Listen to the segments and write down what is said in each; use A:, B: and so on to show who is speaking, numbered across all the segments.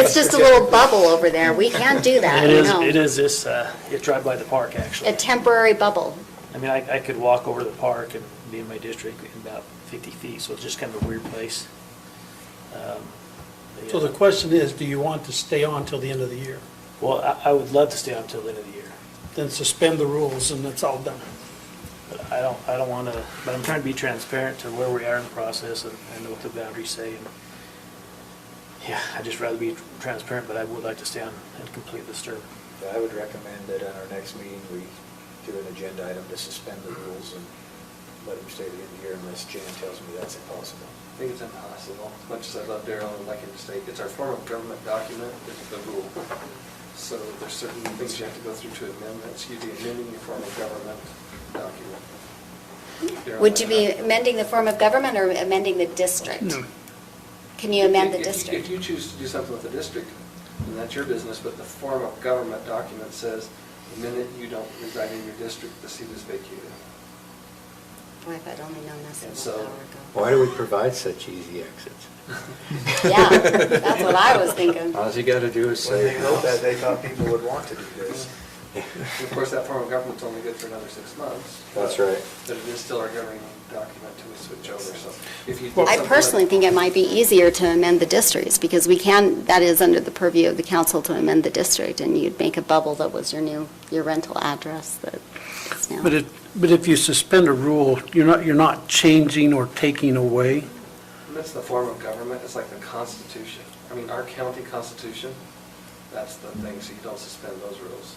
A: It's just a little bubble over there. We can't do that,
B: It
A: you
B: is,
A: know.
B: it is this, uh, you drive by the park,
A: A
B: actually.
A: temporary bubble.
B: I mean, I, I could walk over to the park and be in my district in about 50 feet, so it's just kind of a weird place. Um, but
C: So
B: yeah.
C: the question is, do you want to stay on till the end of the year?
B: Well, I, I would love to stay on till the end of the year,
C: Then suspend the rules and it's all done.
B: but I don't, I don't want to, but I'm trying to be transparent to where we are in the process and I know what the boundaries say. and Yeah, I'd just rather be transparent, but I would like to stay on and complete this term.
D: I would recommend that on our next meeting, we do an agenda item to suspend the rules and let them stay to the end here unless Jan tells me that's impossible.
E: I think it's impossible. As much as I love Daryl, I'd like him to stay. It's our form of government document, it's the rule. So there's certain things you have to go through to amendments. You'd be amending your form of government document. Daryl,
A: Would you
E: I-
A: be amending the form of government or amending the district?
C: No.
A: Can you amend the
E: If- if- If
A: district?
E: you choose to do something with the district, then that's your business, but the form of government document says, the minute you don't reside in your district, the seat is vacated.
A: Boy, if I'd only known this
E: And
A: a
E: so-
A: little hour
D: Why do we provide such easy exits?
A: ago. Yeah, that's what I was thinking.
D: All you gotta do is
F: When
D: say.
F: they wrote that, they thought people would want to do this.
E: And Of course, that form of government's only good for another six months.
D: That's right.
E: But it is still our governing document till we switch over, so if you. did
A: I
E: something like-
A: personally think it might be easier to amend the districts because we can, that is under the purview of the council to amend the district and you'd make a bubble that was your new, your rental address that is now.
C: But if, but if you suspend a rule, you're not, you're not changing or taking away.
E: That's the form of government, it's like the Constitution. I mean, our county constitution, that's the thing, so you don't suspend those rules.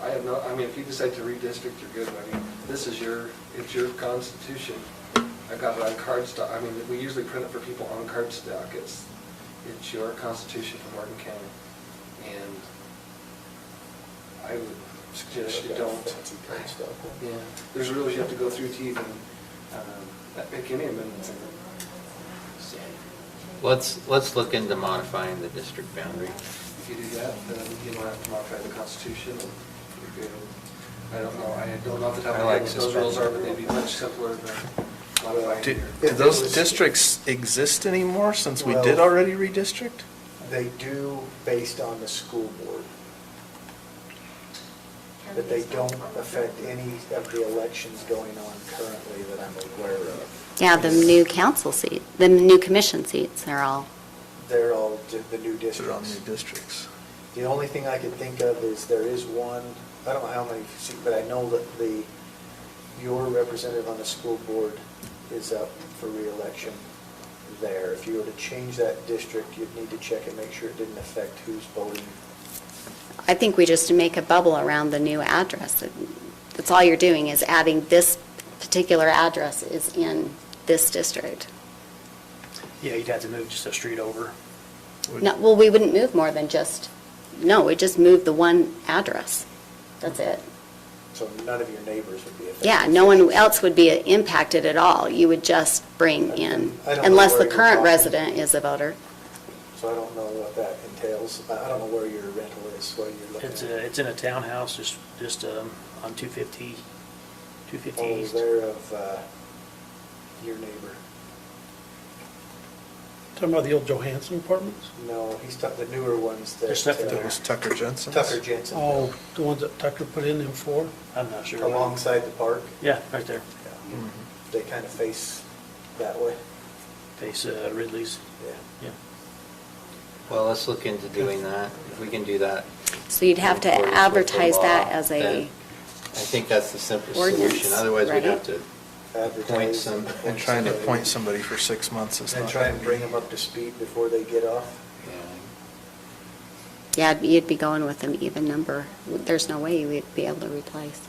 E: I have no, I mean, if you decide to redistrict, you're good, I mean, this is your, it's your constitution. I got it on card stock, I mean, we usually print it for people on card stock, it's, it's your constitution for Morgan County. And I would suggest you don't. Yeah, there's rules you have to go through to even, um, make any amendments in it. So,
G: Let's, let's look into modifying the district boundary.
E: if you do that, uh, E then you don't have to modify the constitution, and you're good. I don't know, I don't know off the top of my
G: I
E: head
G: like
E: what those rules are, but they'd be
G: suspending.
E: much simpler than modifying
F: Do
E: here.
F: do those districts exist anymore since we did
D: Well-
F: already redistrict?
D: They do based on the school board, but they don't affect any of the elections going on currently that I'm aware of.
A: Yeah, the new council seat, the new commission seats are all,
D: They're all di- the new
F: They're all
D: districts.
F: new districts.
D: The only thing I could think of is there is one, I don't know how many, but I know that the, your representative on the school board is up for reelection there. If you were to change that district, you'd need to check and make sure it didn't affect who's voting.
A: I think we just make a bubble around the new address. That's all you're doing is adding this particular address is in this district.
B: Yeah, you'd have to move just a street over.
A: No, well, we wouldn't move more than just, no, we just move the one address. That's it.
D: So none of your neighbors would be affected.
A: Yeah, no one else would be impacted at all. You would just bring in,
D: I don't know
A: unless the
D: where you're
A: current
D: talking.
A: resident is a voter.
D: So I don't know what that entails. I I don't know where your rental is, where you're looking.
B: It's, a- it's in a townhouse, just, just um, on 250, 250
D: Over
B: East.
D: Oh, there of uh, your neighbor.
C: Talking about the old Johansson apartments?
D: No, he's talking, the newer ones that.
B: There's nothing
D: uh,
B: there.
F: That was Tucker Jensen.
D: Tucker Jensen.
C: Oh, the ones that Tucker put in them for?
B: I'm not sure.
D: Alongside the park.
B: Yeah, right there,
D: They kind of face that way.
B: face uh, Ridley's,
D: Yeah.
B: yeah.
G: Well, let's look into doing that. If we can do that.
A: So you'd have to
G: in accordance with the
A: advertise that
G: law,
A: as
G: then
A: a,
G: I think that's the simplest
A: ordinance,
G: solution. Otherwise, we'd have
A: right?
G: to point
D: Advertise
G: some.
F: And trying to point somebody for six months is not.
D: And try and
F: gonna
D: bring
F: be-
D: them up to speed before they get off.
G: Yeah.
A: yeah, you'd be going with an even number. There's no way you would be able to replace.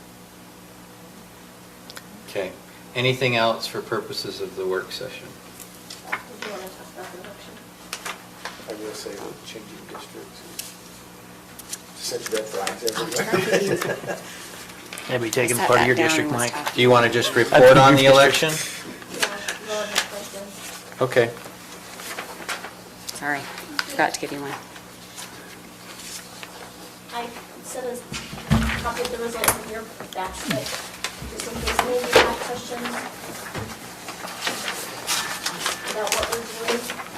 G: Okay. Anything else for purposes of the work session?
H: Did you want to talk about the election?
D: I will say with changing districts. Such red flags
A: Oh,
D: everywhere.
B: That'd be taking
A: Set
B: part of
A: that
B: your
A: down
B: district,
A: and
B: Mike.
A: stuff.
G: Do you want to just report on the election?
H: Yeah, well, the question.
G: Okay.
A: Sorry, forgot to give you one.
H: I sent a copy of the results in your basket, just in case any of you have questions about what we're doing.